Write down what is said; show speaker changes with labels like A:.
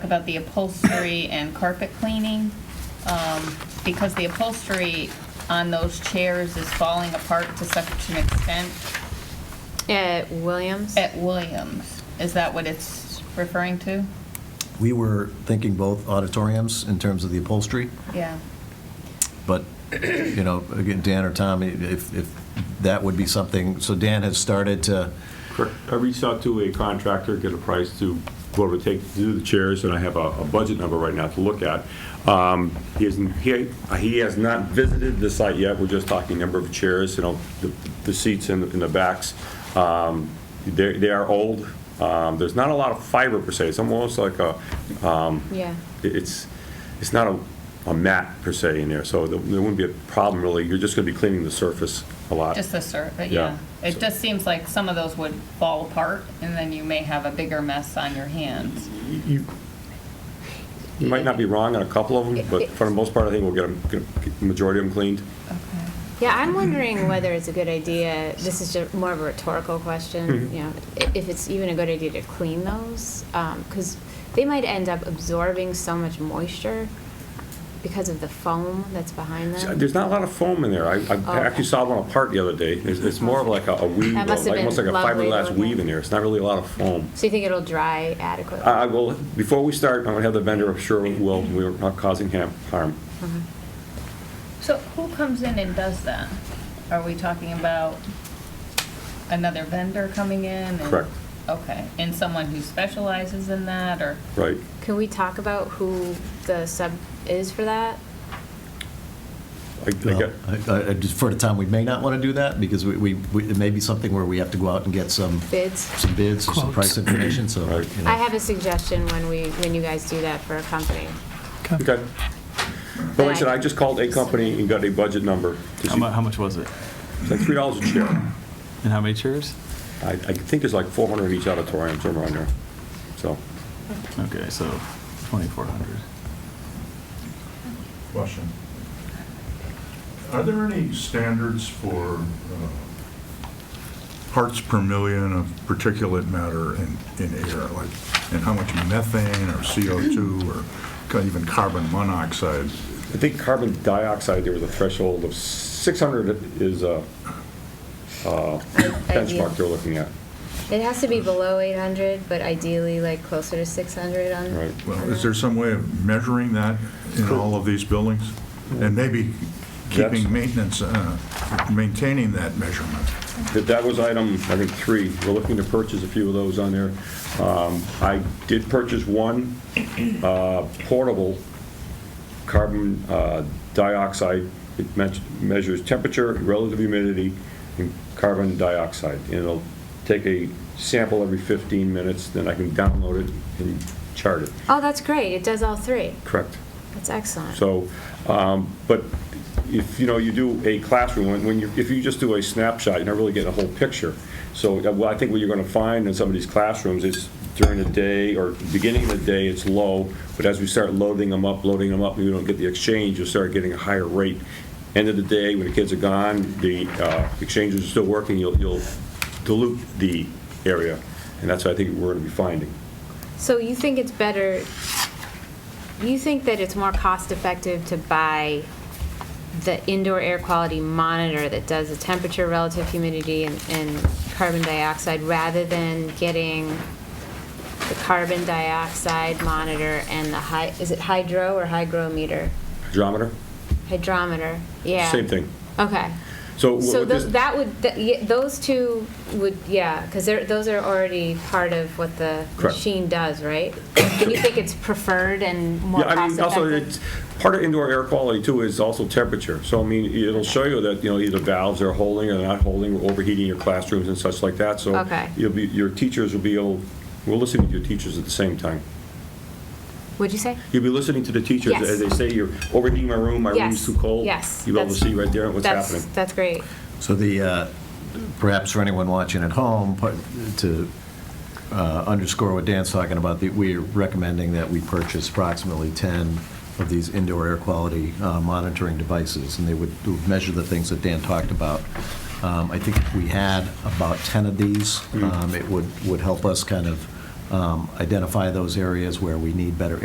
A: about the upholstery and carpet cleaning, um, because the upholstery on those chairs is falling apart to such an extent
B: At Williams?
A: at Williams. Is that what it's referring to?
C: We were thinking both auditoriums in terms of the upholstery,
A: Yeah.
C: but, you know, again, Dan or Tom, if, if that would be something, so Dan has started to,
D: Correct. I reached out to a contractor, get a price to what it would take to do the chairs, and I have a a budget number right now to look at. Um, He hasn't, he he has not visited the site yet, we're just talking number of chairs, you know, the- the seats in in the backs. Um, They they are old, Um, there's not a lot of fiber per se, it's almost like a,
B: Yeah.
D: it- it's, it's not a a mat per se in there, so there there wouldn't be a problem really, you're just going to be cleaning the surface a lot.
A: Just the sur, but
D: Yeah.
A: yeah. It just seems like some of those would fall apart, and then you may have a bigger mess on your hands.
D: You you might not be wrong on a couple of them, but for the most part, I think we'll get them, get the majority of them cleaned.
B: Yeah, I'm wondering whether it's a good idea, this is just more of a rhetorical
D: Mm-hmm.
B: question, you know, i- if it's even a good idea to clean those, because they might end up absorbing so much moisture because of the foam that's behind them.
D: There's not a lot of foam in there. I,
B: Oh,
D: I actually saw one apart the other day. It's, it's more of like a a weave,
B: That
D: though,
B: must have
D: like, almost like
B: been
D: a
B: lovely to
D: fiberglass
B: look
D: weave
B: at.
D: in there. It's not really a lot of foam.
B: So you think it'll dry adequately?
D: Uh, I, I will, before we start, I'm gonna have the vendor, I'm sure will, we're not causing ham- harm.
A: So who comes in and does that? Are we talking about another vendor coming in? and-
D: Correct.
A: Okay, and someone who specializes in that, or?
D: Right.
B: Can we talk about who the sub is for that?
D: I- I
C: well,
D: get-
C: I I defer to Tom, we may not want to do that, because we, we- we- it may be something where we have to go out and get some,
B: Bids?
C: some bids, or some price information, so.
D: Right.
C: you know.
B: I have a suggestion when we, when you guys do that for a company.
D: Okay. But like I said, I just called a company and got a budget number. to
E: How
D: see-
E: mu, how much was it?
D: It's like three dollars a chair.
E: And how many chairs?
D: I, I think there's like four hundred in each auditorium, somewhere around there. So,
E: Okay, so 2,400.
F: Question. Are there any standards for uh, parts per million of particulate matter in, in air? Like, and how much methane or CO2 or ca- even carbon monoxide?
D: I think carbon dioxide, there was a threshold of 600 is a uh, benchmark they're looking at.
B: It has to be below 800, but ideally like closer to 600 on.
D: Right.
B: on
F: Well,
B: that.
F: is there some way of measuring that in all of these buildings? And maybe
D: That's-
F: keeping maintenance, uh, maintaining that measurement?
D: That- That was item, I think, three. We're looking to purchase a few of those on there. Um, I did purchase one uh, portable carbon uh, dioxide. It me- measures temperature, relative humidity, and carbon dioxide. And it'll take a sample every 15 minutes, then I can download it and chart it.
B: Oh, that's great. It does all three.
D: Correct.
B: That's excellent.
D: So, um, but if, you know, you do a classroom, when- when you, if you just do a snapshot, you're not really getting a whole picture. So uh, well, I think what you're going to find in some of these classrooms is during the day or beginning of the day, it's low, but as we start loading them up, loading them up, and you don't get the exchange, you'll start getting a higher rate. End of the day, when the kids are gone, the uh, exchanges are still working, you'll you'll dilute the area, and that's what I think we're going to be finding.
B: So you think it's better, you think that it's more cost-effective to buy the indoor air quality monitor that does the temperature, relative humidity, and, and carbon dioxide, rather than getting the carbon dioxide monitor and the hy, is it hydro or hygrometer?
D: Hydrometer?
B: Hydrometer, yeah.
D: Same thing.
B: Okay.
D: So what
B: So
D: would
B: tho-
D: this-
B: that would, that- ye- those two would, yeah, because those are already part of what the
D: Correct.
B: machine does, right? And you think it's preferred and more
D: Yeah, I mean, also,
B: cost-effective?
D: it's, part of indoor air quality too is also temperature. So, I mean, it'll show you that, you know, either valves are holding or not holding, or overheating your classrooms and such like that. So
B: Okay.
D: you'll be, your teachers will be able, we're listening to your teachers at the same time.
B: What'd you say?
D: You'll be listening to the teachers
B: Yes.
D: as they say, you're overheating my room, my room's
B: Yes,
D: too cold.
B: yes,
D: You'll be able to
B: that's-
D: see right there what's
B: That's-
D: happening.
B: That's great.
C: So the, uh, perhaps for anyone watching at home, part- to uh, underscore what Dan's talking about, that we are recommending that we purchase approximately 10 of these indoor air quality uh, monitoring devices, and they would would measure the things that Dan talked about. Um, I think if we had about 10 of these, um, it would, would help us kind of um, identify those areas where we need better